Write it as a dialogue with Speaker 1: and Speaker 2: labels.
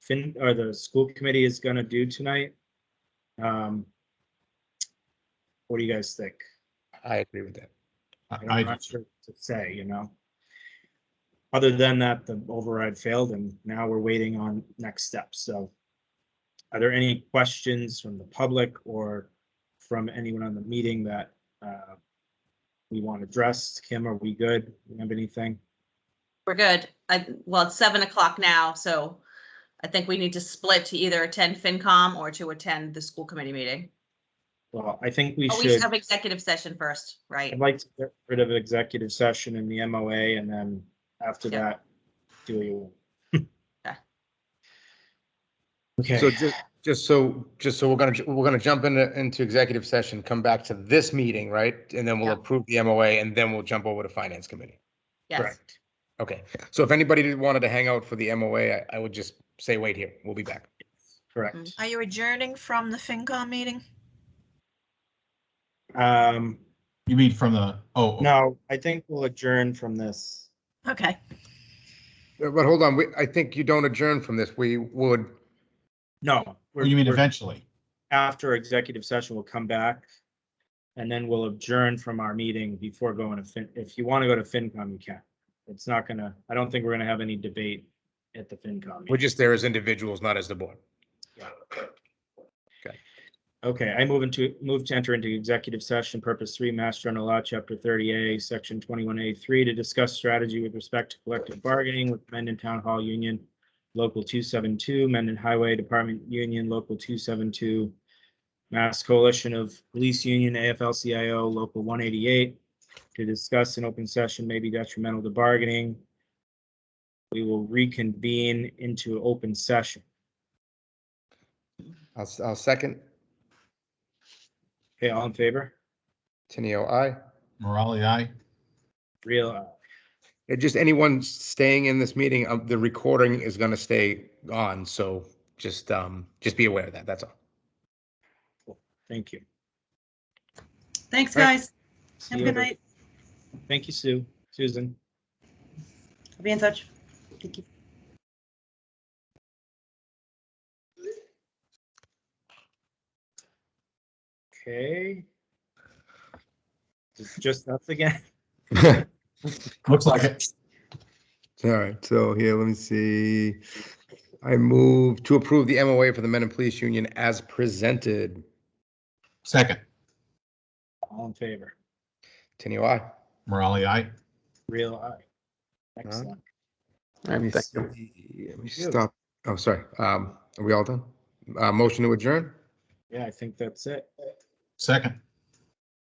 Speaker 1: fin, or the school committee is gonna do tonight. Um, What do you guys think?
Speaker 2: I agree with that.
Speaker 1: I'm
Speaker 3: I, I-
Speaker 1: not sure what to say, you know? Other than that, the override failed and now we're waiting on next steps, so. Are there any questions from the public or from anyone on the meeting that uh, we want addressed? Kim, are we good? You have anything?
Speaker 4: We're good. I, well, it's seven o'clock now, so I think we need to split to either attend FinCom or to attend the school committee meeting.
Speaker 1: Well, I think we
Speaker 4: Oh,
Speaker 1: should.
Speaker 4: we should have executive session first, right?
Speaker 1: I'd like to get rid of executive session and the MOA, and then after
Speaker 4: Yeah.
Speaker 1: that, do you?
Speaker 2: So
Speaker 1: Okay,
Speaker 2: just, just so, just so we're gonna, ju- we're gonna jump into, into executive session, come back to this meeting, right? And then we'll
Speaker 4: Yeah.
Speaker 2: approve the MOA and then we'll jump over to finance committee.
Speaker 4: Yes.
Speaker 1: correct.
Speaker 2: Okay, so if anybody did- wanted to hang out for the MOA, I, I would just say, wait here, we'll be back.
Speaker 1: Correct.
Speaker 5: Are you adjourning from the FinCom meeting?
Speaker 1: Um,
Speaker 3: you mean from the, oh.
Speaker 1: no, I think we'll adjourn from this.
Speaker 5: Okay,
Speaker 2: Uh, But hold on, we, I think you don't adjourn from this. We would,
Speaker 1: No.
Speaker 3: oh,
Speaker 1: we're-
Speaker 3: You mean
Speaker 1: we're-
Speaker 3: eventually?
Speaker 1: After executive session, we'll come back. And then we'll adjourn from our meeting before going to Fin, if you want to go to FinCom, you can. It's not gonna, I don't think we're gonna have any debate at the FinCom. meeting.
Speaker 2: we're just there as individuals, not as the board.
Speaker 1: Okay, I move into, move to enter into executive session, purpose three, Mass General Law, Chapter thirty A, Section twenty-one A three, to discuss strategy with respect to collective bargaining with Mendon Town Hall Union, Local two seven two, Mendon Highway Department Union, Local two seven two, Mass Coalition of Police Union, AFL-CIO, Local one eighty-eight, to discuss an open session may be detrimental to bargaining. We will reconvene into open session.
Speaker 2: I'll, s- I'll second.
Speaker 1: Okay, all in favor?
Speaker 2: Tenio, I.
Speaker 3: Morale, aye.
Speaker 1: Real, uh,
Speaker 2: And just anyone staying in this meeting, um, the recording is gonna stay on, so just, um, just be aware of that, that's all.
Speaker 1: thank you.
Speaker 5: thanks,
Speaker 2: All right.
Speaker 5: guys.
Speaker 1: See
Speaker 5: Have a
Speaker 1: you
Speaker 5: good
Speaker 1: later.
Speaker 5: night.
Speaker 1: Thank you, Sue, Susan.
Speaker 5: I'll be in touch. Thank you.
Speaker 1: Okay. It's just us again.
Speaker 3: Looks like it.
Speaker 2: All right, so here, let me see. I move to approve the MOA for the Men and Police Union as presented.
Speaker 3: Second,
Speaker 1: All in favor?
Speaker 2: Tenio, I.
Speaker 3: Morale, aye.
Speaker 1: Real eye. Excellent.
Speaker 2: Let me
Speaker 1: Thank you.
Speaker 2: see, let me
Speaker 1: Yeah.
Speaker 2: stop. Oh, sorry. Um, are we all done? Uh, motion to adjourn?
Speaker 1: Yeah, I think that's it.
Speaker 3: Second,